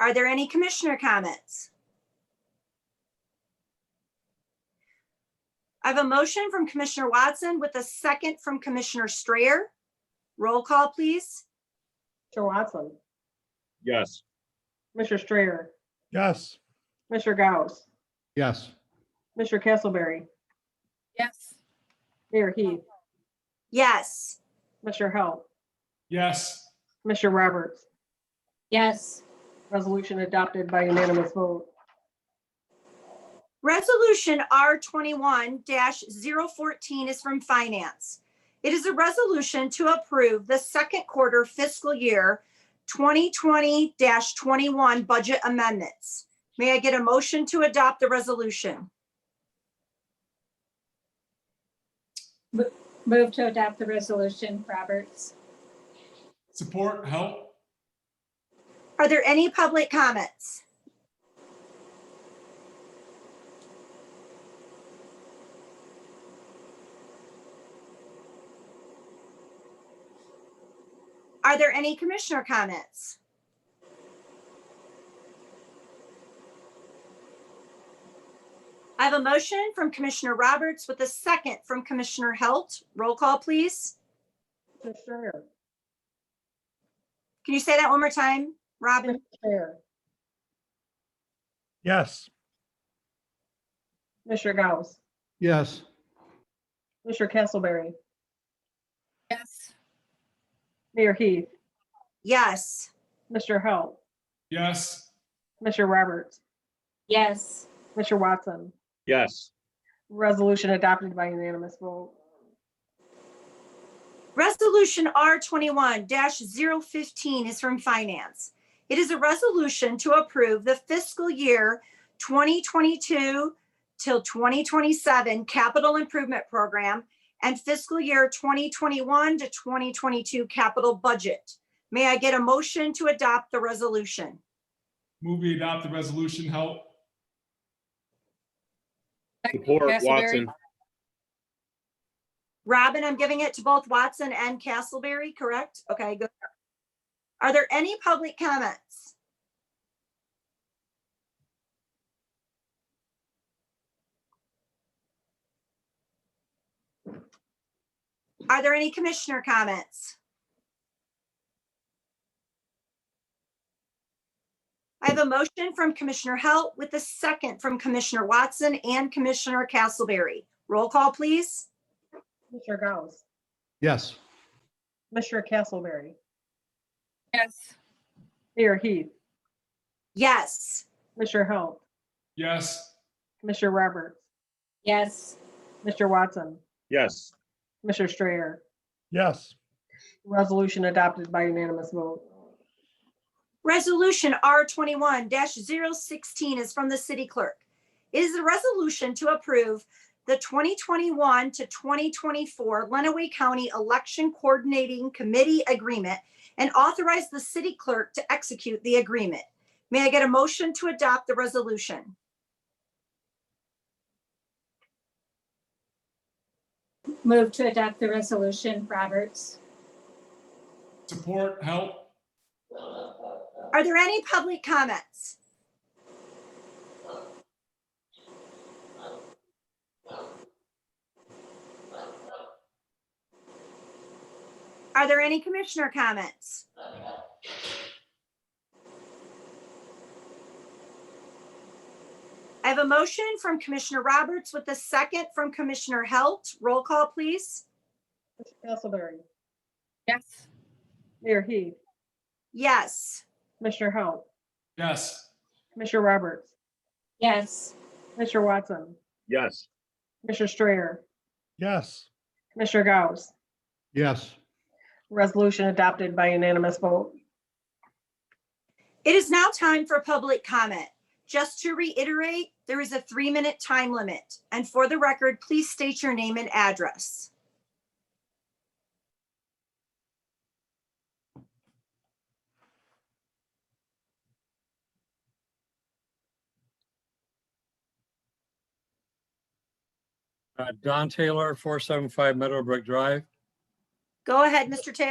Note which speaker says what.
Speaker 1: Are there any commissioner comments? I have a motion from Commissioner Watson with a second from Commissioner Strayer. Roll call, please.
Speaker 2: Mr. Watson,
Speaker 3: Yes.
Speaker 2: Mr. Strayer,
Speaker 4: Yes.
Speaker 2: Mr. Gauss,
Speaker 4: Yes.
Speaker 2: Mr. Castleberry,
Speaker 5: Yes.
Speaker 2: Mayor Heath,
Speaker 1: Yes.
Speaker 2: Mr. Hell,
Speaker 3: Yes.
Speaker 2: Mr. Roberts.
Speaker 5: Yes.
Speaker 2: Resolution adopted by unanimous vote.
Speaker 1: Resolution R twenty-one 14 is from Finance. It is a resolution to approve the second quarter fiscal year twenty twenty twenty-one budget amendments. May I get a motion to adopt the resolution?
Speaker 5: Move to adopt the resolution, Roberts.
Speaker 6: Support, help?
Speaker 1: Are there any public comments? Are there any commissioner comments? I have a motion from Commissioner Roberts with a second from Commissioner Halt. Roll call, please.
Speaker 2: Mr. Strayer,
Speaker 1: Can you say that one more time, Robin?
Speaker 2: Mr. Strayer,
Speaker 4: Yes.
Speaker 2: Mr. Gauss,
Speaker 4: Yes.
Speaker 2: Mr. Castleberry,
Speaker 5: Yes.
Speaker 2: Mayor Heath,
Speaker 1: Yes.
Speaker 2: Mr. Hell,
Speaker 6: Yes.
Speaker 2: Mr. Roberts,
Speaker 5: Yes.
Speaker 2: Mr. Watson.
Speaker 3: Yes.
Speaker 2: Resolution adopted by unanimous vote.
Speaker 1: Resolution R twenty-one 15 is from Finance. It is a resolution to approve the fiscal year twenty twenty-two till twenty twenty-seven capital improvement program and fiscal year twenty twenty-one to twenty twenty-two capital budget. May I get a motion to adopt the resolution?
Speaker 6: Move we adopt the resolution, help?
Speaker 3: Support
Speaker 5: Castleberry.
Speaker 3: Watson.
Speaker 1: Robin, I'm giving it to both Watson and Castleberry, correct? Okay, good. Are there any public comments? Are there any commissioner comments? I have a motion from Commissioner Halt with a second from Commissioner Watson and Commissioner Castleberry. Roll call, please.
Speaker 2: Mr. Gauss,
Speaker 4: Yes.
Speaker 2: Mr. Castleberry,
Speaker 5: Yes.
Speaker 2: Mayor Heath,
Speaker 1: Yes.
Speaker 2: Mr. Hell,
Speaker 6: Yes.
Speaker 2: Mr. Roberts,
Speaker 5: Yes.
Speaker 2: Mr. Watson,
Speaker 3: Yes.
Speaker 2: Mr. Strayer.
Speaker 4: Yes.
Speaker 2: Resolution adopted by unanimous vote.
Speaker 1: Resolution R twenty-one 16 is from the city clerk. It is a resolution to approve the twenty twenty-one to twenty twenty-four Lenawee County Election Coordinating Committee Agreement and authorize the city clerk to execute the agreement. May I get a motion to adopt the resolution?
Speaker 5: Move to adopt the resolution, Roberts.
Speaker 6: Support, help?
Speaker 1: Are there any public comments? Are there any commissioner comments? I have a motion from Commissioner Roberts with a second from Commissioner Halt. Roll call, please.
Speaker 2: Mr. Castleberry,
Speaker 5: Yes.
Speaker 2: Mayor Heath,
Speaker 1: Yes.
Speaker 2: Mr. Hell,
Speaker 6: Yes.
Speaker 2: Mr. Roberts,
Speaker 5: Yes.
Speaker 2: Mr. Watson,
Speaker 3: Yes.
Speaker 2: Mr. Strayer,
Speaker 4: Yes.
Speaker 2: Mr. Gauss.
Speaker 4: Yes.
Speaker 2: Resolution adopted by unanimous vote.
Speaker 1: It is now time for public comment. Just to reiterate, there is a three-minute time limit. And for the record, please state your name and address.
Speaker 7: Uh, Don Taylor, 475 Meadowbrook Drive.
Speaker 1: Go ahead, Mr. Taylor.